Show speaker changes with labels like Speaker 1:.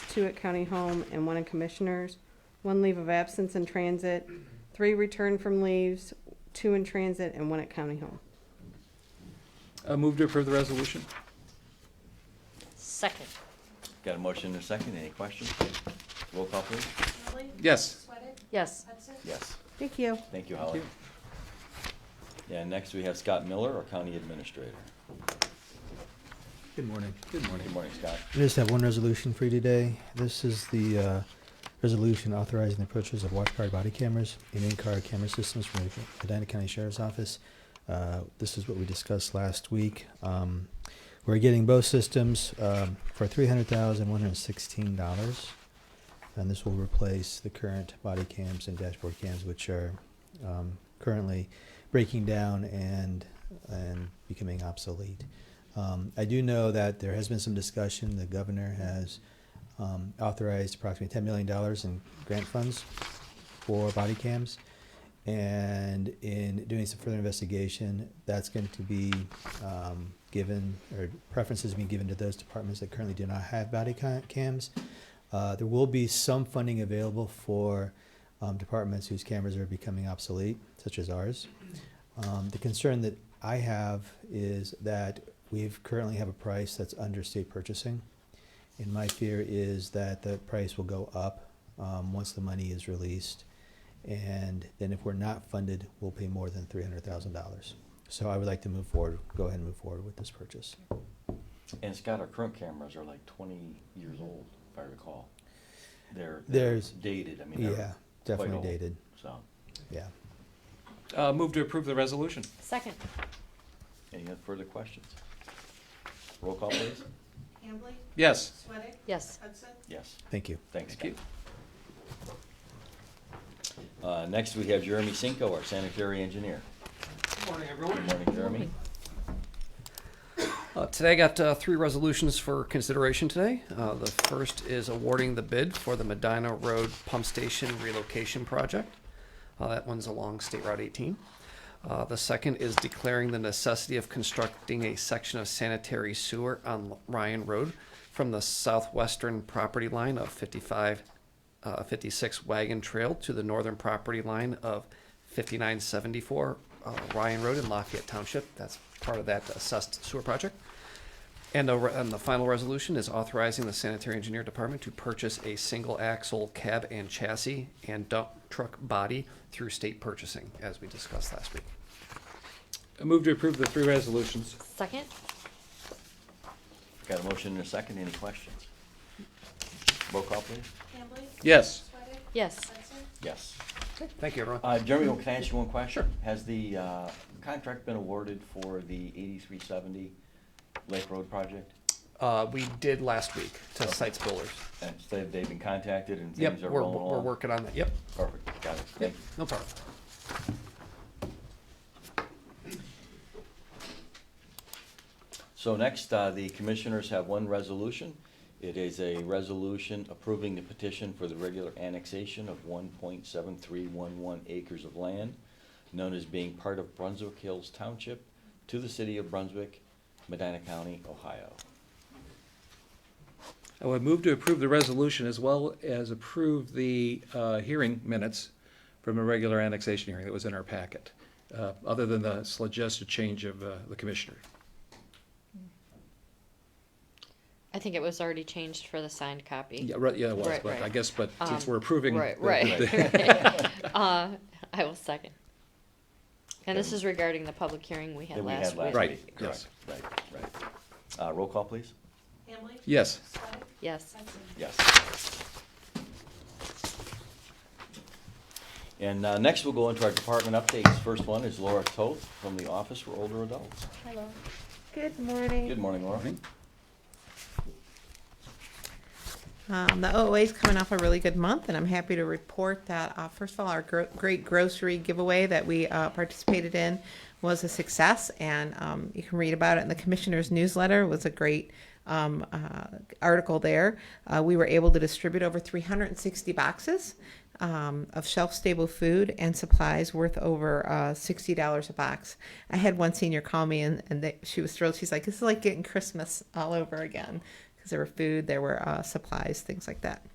Speaker 1: two at county home, and one in commissioners, one leave of absence in transit, three return from leaves, two in transit, and one at county home.
Speaker 2: Uh, move to approve the resolution.
Speaker 3: Second.
Speaker 4: Got a motion and a second, any questions? Roll call please.
Speaker 5: Malley?
Speaker 2: Yes.
Speaker 5: Sweattick?
Speaker 3: Yes.
Speaker 5: Hudson?
Speaker 4: Yes,
Speaker 1: Thank you.
Speaker 4: thank you,
Speaker 2: Thank
Speaker 4: Holly.
Speaker 2: you.
Speaker 4: Yeah, next we have Scott Miller, our county administrator.
Speaker 6: Good morning.
Speaker 2: Good morning.
Speaker 4: Good morning, Scott.
Speaker 6: I just have one resolution for you today. This is the uh, resolution authorizing the purchase of watch guard body cameras and in-car camera systems from the Medina County Sheriff's Office. Uh, This is what we discussed last week. Um, We're getting both systems um, for three hundred thousand, one hundred and sixteen dollars. And this will replace the current body cams and dashboard cams, which are um, currently breaking down and, and becoming obsolete. Um, I do know that there has been some discussion. The governor has um, authorized approximately $10 million in grant funds for body cams. And in doing some further investigation, that's going to be um, given, or preferences being given to those departments that currently do not have body ca- cams. Uh, there will be some funding available for um, departments whose cameras are becoming obsolete, such as ours. Um, the concern that I have is that we've currently have a price that's under state purchasing. And my fear is that the price will go up, um, once the money is released. And then if we're not funded, we'll pay more than three hundred thousand dollars. So I would like to move forward, go ahead and move forward with this purchase.
Speaker 4: And Scott, our current cameras are like twenty years old, if I recall. They're, they're
Speaker 6: There's-
Speaker 4: dated, I mean,
Speaker 6: Yeah,
Speaker 4: they're quite
Speaker 6: definitely
Speaker 4: old,
Speaker 6: dated,
Speaker 4: so.
Speaker 6: yeah.
Speaker 2: Uh, move to approve the resolution.
Speaker 3: Second.
Speaker 4: Any other further questions? Roll call, please.
Speaker 5: Hambley?
Speaker 2: Yes.
Speaker 5: Sweattick?
Speaker 3: Yes.
Speaker 5: Hudson?
Speaker 4: Yes,
Speaker 6: Thank you.
Speaker 4: thanks,
Speaker 2: Thank you.
Speaker 4: Scott. Uh, next, we have Jeremy Cinco, our sanitary engineer. Good morning, everyone. Good morning,
Speaker 7: Uh, Today, I got uh, three resolutions for consideration today. Uh, The first is awarding the bid for the Medina Road Pump Station Relocation Project. Uh, That one's along State Route 18. Uh, The second is declaring the necessity of constructing a section of sanitary sewer on Ryan Road from the southwestern property line of 55, uh, 56 Wagon Trail to the northern property line of 5974 uh, Ryan Road in Lafayette Township. That's part of that assessed sewer project. And, a re- and the final resolution is authorizing the sanitary engineer department to purchase a single axle cab and chassis and dump truck body through state purchasing, as we discussed last week.
Speaker 2: Uh, move to approve the three resolutions.
Speaker 3: Second.
Speaker 4: Got a motion and a second, any questions? Roll call, please.
Speaker 5: Hambley?
Speaker 2: Yes.
Speaker 5: Sweattick?
Speaker 3: Yes.
Speaker 5: Hudson?
Speaker 4: Yes.
Speaker 7: Thank you, everyone.
Speaker 4: Uh, Jeremy, can I ask you one question? Has the, uh, contract been awarded for the eighty-three seventy Lake Road project?
Speaker 7: Uh, we did last week to Sites Builders.
Speaker 4: And so they've been contacted and
Speaker 7: Yep,
Speaker 4: things are
Speaker 7: we're,
Speaker 4: rolling along?
Speaker 7: we're working on that. Yep,
Speaker 4: Perfect, got it,
Speaker 7: yep,
Speaker 4: thank you.
Speaker 7: no problem.
Speaker 4: So next, uh, the commissioners have one resolution. It is a resolution approving the petition for the regular annexation of one point seven three one one acres of land known as being part of Brunswick Hills Township to the city of Brunswick, Medina County, Ohio.
Speaker 2: I would move to approve the resolution as well as approve the uh, hearing minutes from a regular annexation hearing that was in our packet, uh, other than the suggested change of uh, the commissioner.
Speaker 3: I think it was already changed for the signed copy.
Speaker 2: Yeah, right, yeah, it was,
Speaker 3: Right,
Speaker 2: but I
Speaker 3: right.
Speaker 2: guess, but since
Speaker 3: Um,
Speaker 2: we're approving.
Speaker 3: Right,
Speaker 2: the-
Speaker 3: right. Uh, I will second. And this
Speaker 4: Okay.
Speaker 3: is regarding the public hearing we had
Speaker 4: That we
Speaker 3: last
Speaker 4: had last
Speaker 3: week.
Speaker 2: Right,
Speaker 4: week,
Speaker 2: yes.
Speaker 4: correct, right, right. Uh, roll call, please.
Speaker 5: Hambley?
Speaker 2: Yes.
Speaker 5: Sweattick?
Speaker 3: Yes.
Speaker 5: Hudson?
Speaker 4: Yes. And uh, next, we'll go into our department updates. First one is Laura Toth from the Office for Older Adults.
Speaker 3: Hello.
Speaker 1: Good morning.
Speaker 4: Good morning, Laura.
Speaker 8: Um, the OOA is coming off a really good month, and I'm happy to report that, uh, first of all, our gro- great grocery giveaway that we uh, participated in was a success, and um, you can read about it in the commissioner's newsletter. It was a great um, uh, article there. Uh, we were able to distribute over 360 boxes um, of shelf-stable food and supplies worth over uh, sixty dollars a box. I had one senior call me, and, and they, she was thrilled. She's like, "This is like getting Christmas all over again." because there were food, there were uh, supplies, things like that.